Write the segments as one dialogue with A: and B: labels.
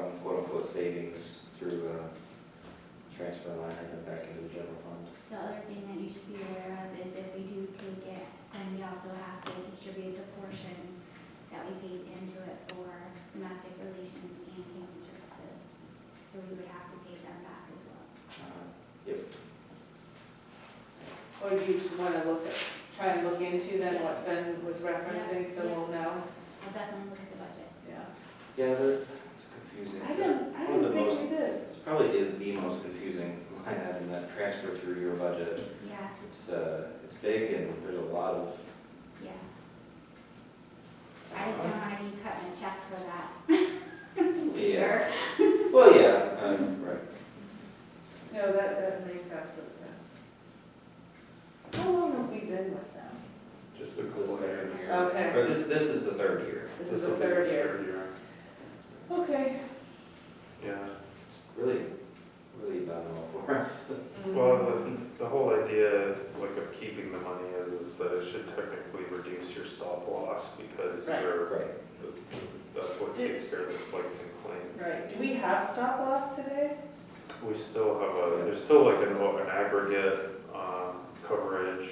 A: the savings through a transfer line item back into the general fund.
B: The other thing that you should be aware of is if we do take it, then we also have to distribute the portion that we paid into it for domestic relations and human services. So we would have to pay them back as well.
A: Uh,
C: Or do you want to look at, try and look into then what Ben was referencing, so we'll know?
B: I'll definitely look at the budget.
C: Yeah.
A: Yeah, they're- it's confusing.
C: I don't, I
A: One of
C: don't
A: the most-
C: think we did.
A: This probably is the most confusing line item, that transfer through your budget.
B: Yeah,
A: It's, uh, it's big and there's a lot of.
B: yeah. I just don't want to be cutting a check for that.
A: Yeah, well, yeah, um, right.
C: No, that, that makes absolute sense. How long have we been with them?
D: Just a couple of years.
C: Okay,
A: But this, this is the third year.
C: this is the third year.
D: Third year,
C: Okay.
D: yeah.
A: It's really, really nominal for us.
C: Mm-hmm.
D: Well, uh, the, the whole idea, like, of keeping the money is, is that it should technically reduce your stop loss because
C: Right.
D: you're,
A: Right.
D: that's what takes care of the spikes in claim.
C: Right, do we have stop loss today?
D: We still have a, there's still like an, an aggregate, um, coverage.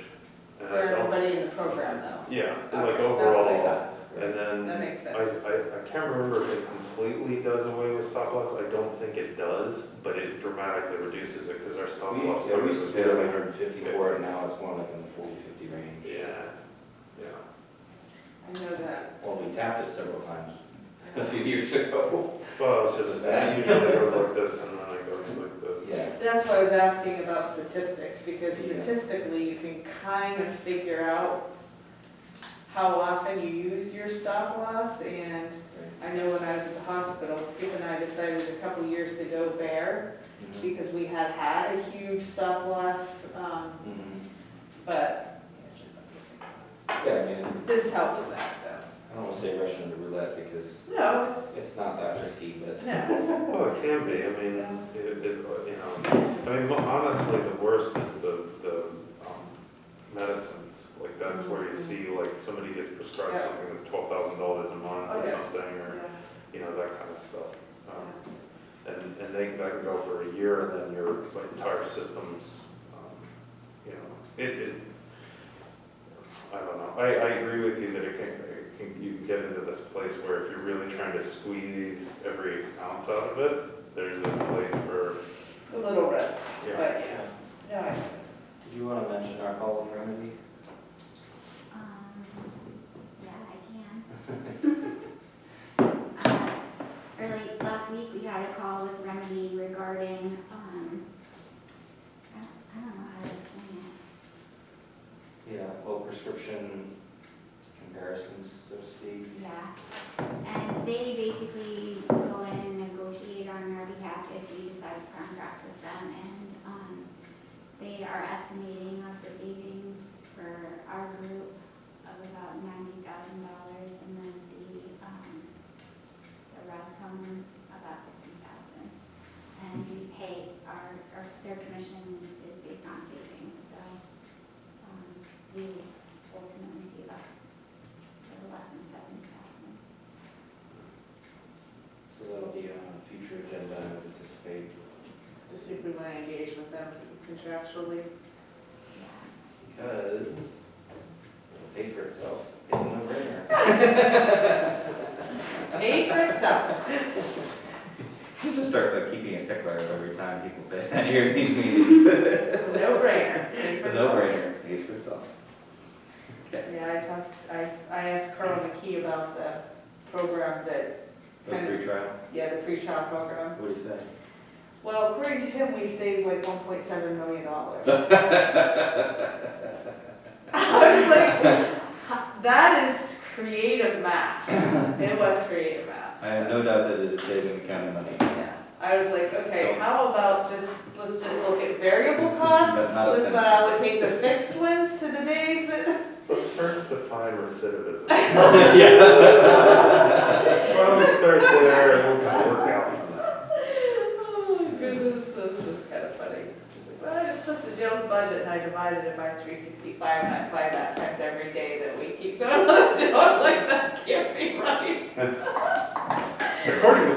D: and I don't-
C: in the program though.
D: Yeah,
C: Okay, That's
D: like
C: what I
D: overall,
C: thought,
D: and then.
C: that makes
D: I,
C: sense.
D: I, I can't remember if it completely does away with stop loss, I don't think it does, but it dramatically reduces it, cause our stop
A: We,
D: loss
A: yeah, we
D: coverage
A: used to
D: is
A: pay like
D: really.
A: hundred and fifty for it, and now it's more like in the forty, fifty range.
D: Yeah, yeah.
C: I know that.
A: Well, we tapped it several times a few years ago.
D: Well, it's just, it usually goes like this and then it goes like this.
A: Yeah,
C: That's why I was asking about statistics, because
A: Yeah.
C: statistically, you can kind of figure out how often you use your stop loss, and
A: right.
C: I know when I was at the hospital, Skip and I decided a couple years to go there,
A: Mhm.
C: because we had had a huge stop loss, um,
A: Mhm.
C: but it's just something.
A: Yeah, I mean, it's-
C: this helps that, though.
A: I don't want to say Russian roulette because
C: No, it's,
A: it's not that risky, but
C: no,
D: Well, it can be, I mean, it, it, you know, I mean, honestly, the worst is the, the, um, medicines. Like, that's where you see, like, somebody gets prescribed
C: Yeah.
D: something that's twelve thousand dollars a month
C: Oh,
D: or
C: yes.
D: something, or,
C: Yeah.
D: you know, that kind of stuff. Um, And, and they, that can go for a year and then your like, entire system's, um, you know, it, it, I don't know. I, I agree with you that it can, it can, you can get into this place where if you're really trying to squeeze every ounce out of it, there's a place for,
C: a little risk, but
D: yeah.
C: yeah, no, I
A: did you want to mention our call with remedy?
B: Um, yeah, I can. Uh, Early last week, we had a call with Remedy regarding, um, I don't- I don't know how to explain it.
A: Yeah, well, prescription comparisons, so to speak.
B: Yeah. And they basically go in and negotiate on our behalf if we decide to contract with them. And, um, they are estimating us a savings for our group of about ninety thousand dollars and then the, um, the rest home about fifty thousand. And we pay our, our, their commission is based on savings, so, um, we ultimately see about a little less than seventy thousand.
A: So that'll be on a future agenda, I would anticipate.
C: Just see if we want to engage with them contractually.
B: Yeah.
A: Because it'll pay for itself. It's a no-brainer.
C: Pay for itself.
A: You just start like keeping a tickler of every time people say that here in these meetings.
C: It's a no-brainer. Pay
A: It's
C: for
A: a
C: itself.
A: no-brainer, pays for itself.
C: Yeah, I talked, I, s- I asked Carl McKee about the program that,
A: Those free trial,
C: yeah, the pre-trial program.
A: what do you say?
C: Well, according to him, we saved like one point seven million dollars. I was like, that is creative math. It was creative math.
A: I have no doubt that it is saving the county money.
C: Yeah, I was like, okay, how about just, let's just look at variable costs?
A: That's not a
C: Let's
A: thing.
C: not allocate the fixed ones to the days that.
D: Let's first define recidivism. So why don't we start there and we'll kind of work out from there.
C: Oh my goodness, this is kind of funny. Well, I just took the jail's budget and I divided it by three sixty-five and I apply that times every day that we keep someone on the jail. I'm like, that can't be right.
D: According to